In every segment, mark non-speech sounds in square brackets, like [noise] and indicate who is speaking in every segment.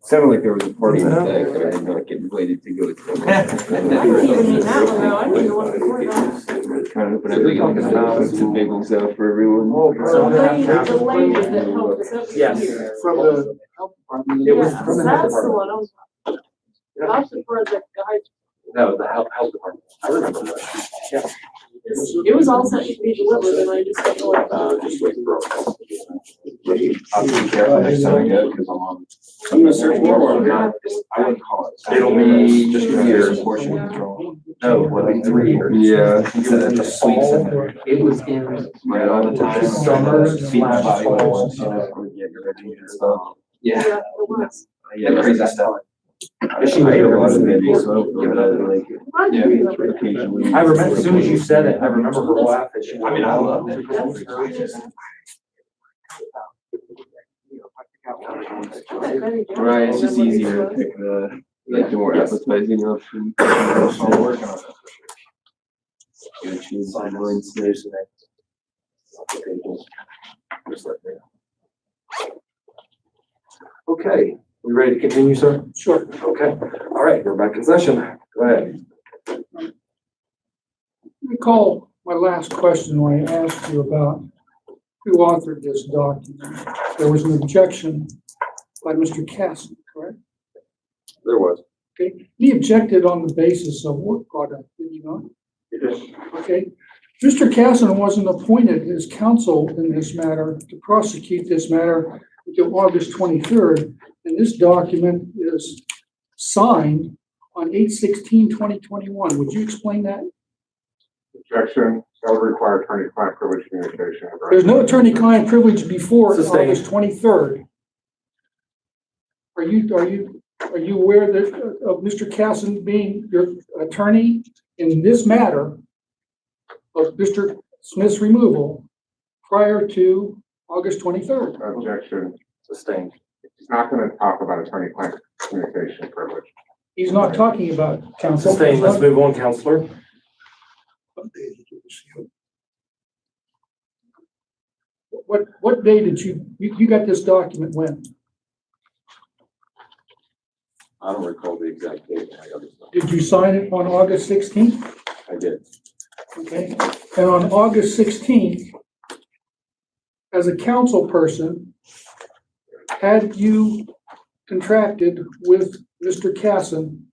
Speaker 1: Sounded like there was a party in the
Speaker 2: Yeah.
Speaker 1: back, but I did not get invited to go to.
Speaker 3: Even me now, no, I didn't know what the word was.
Speaker 1: Kind of, but I think I'm gonna have some bagels out for everyone.
Speaker 2: Oh,
Speaker 3: So
Speaker 2: Yeah.
Speaker 3: lady, the lady that helped us over
Speaker 2: Yes.
Speaker 3: here.
Speaker 2: From the health department.
Speaker 3: Yeah, that's the one I was. That's the part that guy,
Speaker 2: No, the health, health department. I remember that.
Speaker 3: it was all set to be delivered and I just don't know what about.
Speaker 2: Uh, just wait for it.
Speaker 1: I'll be careful next time I go, because I'm on.
Speaker 2: I'm gonna search
Speaker 3: more
Speaker 2: more
Speaker 3: on
Speaker 2: on
Speaker 3: that.
Speaker 1: I wouldn't call it.
Speaker 2: It'll be
Speaker 1: Just
Speaker 2: two
Speaker 1: years.
Speaker 2: years.
Speaker 1: Portion control.
Speaker 2: No, it'll
Speaker 1: Oh,
Speaker 2: be three years.
Speaker 1: Yeah.
Speaker 2: It was in the fall. It was in.
Speaker 1: Right on the time.
Speaker 2: Summer
Speaker 1: Beat my
Speaker 2: slash
Speaker 1: body
Speaker 2: fall.
Speaker 1: once, you know, we get your energy and stuff.
Speaker 2: Yeah.
Speaker 3: Yeah, it was.
Speaker 1: Yeah, crazy stuff. I
Speaker 2: She made
Speaker 1: ate
Speaker 2: a
Speaker 1: a lot of
Speaker 2: video.
Speaker 1: bagels, so I don't feel bad, like.
Speaker 3: I do remember that.
Speaker 1: Occasionally.
Speaker 2: I remember, as soon as you said it, I remember her laugh that she.
Speaker 1: I mean, I love it.
Speaker 3: That's- that very guy.
Speaker 1: Right, it's just
Speaker 3: Remember
Speaker 1: easier to
Speaker 3: what it
Speaker 1: pick the, like, the more
Speaker 2: Yes.
Speaker 1: appetizing option.
Speaker 2: I'm working on
Speaker 1: Gonna choose my mind today.
Speaker 2: Okay, we ready to continue, sir? Sure. Okay, all right, we're back in session. Go ahead.
Speaker 4: Recall my last question when I asked you about who authored this document. There was an objection by Mr. Castle, correct?
Speaker 2: There was.
Speaker 4: Okay, he objected on the basis of work product, did he not? Okay, Mr. Casson wasn't appointed as counsel in this matter to prosecute this matter until August twenty-third. And this document is signed on 2021. Would you explain that?
Speaker 5: Objection, that would require attorney-client privilege communication.
Speaker 4: There's no attorney-client privilege before
Speaker 2: Sustained.
Speaker 4: August twenty-third. Are you, are you, are you aware that, uh, of Mr. Casson being your attorney in this matter of Mr. Smith's removal prior to August twenty-third?
Speaker 5: Objection,
Speaker 2: Sustained.
Speaker 5: he's not gonna talk about attorney-client communication privilege.
Speaker 4: He's not talking about counsel.
Speaker 2: Sustained, let's move on, counselor.
Speaker 4: What, what day did you, you, you got this document when?
Speaker 2: I don't recall the exact date. I got it.
Speaker 4: Did you sign it on August sixteenth?
Speaker 2: I did.
Speaker 4: Okay, and on August sixteenth, as a council person, had you contracted with Mr. Casson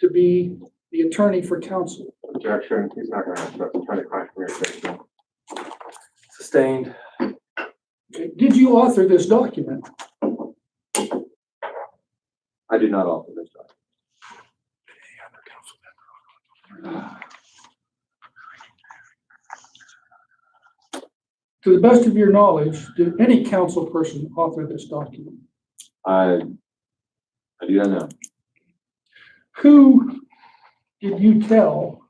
Speaker 4: to be the attorney for council?
Speaker 5: Objection, he's not gonna ask about attorney-client communication.
Speaker 2: Sustained.
Speaker 4: Okay, Did you author this document?
Speaker 2: I do not offer this document.
Speaker 4: To the best of your knowledge, did any council person author this document?
Speaker 2: I, I do not know.
Speaker 4: Who did you tell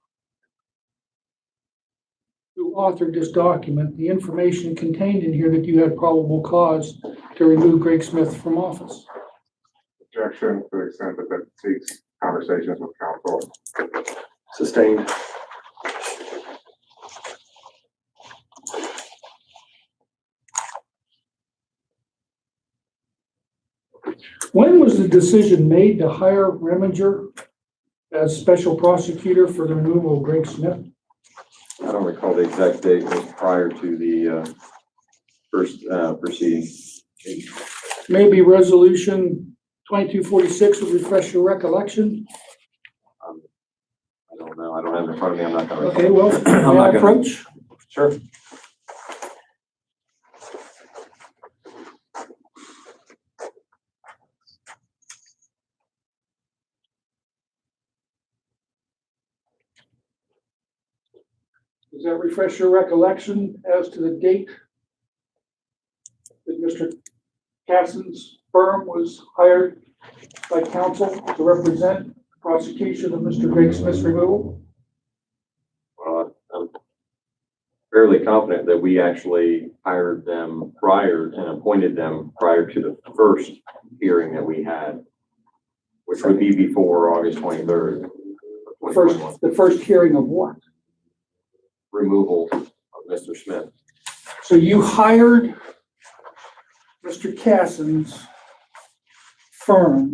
Speaker 4: who authored this document, the information contained in here that you had probable cause to remove Greg Smith from office?
Speaker 5: Objection, to the extent that that seeks conversations with counsel.
Speaker 2: Sustained.
Speaker 4: When was the decision made to hire Reminger as special prosecutor for the removal of Greg Smith?
Speaker 6: I don't recall the exact date, it was prior to the uh, first uh, proceeding.
Speaker 4: Maybe resolution twenty-two forty-six would refresh your recollection?
Speaker 6: Um, I don't know, I don't have it in front of me, I'm not gonna. recall.
Speaker 4: Okay,
Speaker 6: [clears throat]
Speaker 4: well,
Speaker 6: I'm
Speaker 4: may I
Speaker 6: not gonna-
Speaker 4: approach?
Speaker 6: Sure.
Speaker 4: Does that refresh your recollection as to the date that Mr. Casson's firm was hired by counsel to represent the prosecution of Mr. Greg Smith's removal?
Speaker 6: Well, Uh, I'm fairly confident that we actually hired them prior and appointed them prior to the first hearing that we had, which would be before August twenty-third.
Speaker 4: First, the first hearing of what?
Speaker 6: Removal of Mr. Smith.
Speaker 4: So you hired Mr. Casson's firm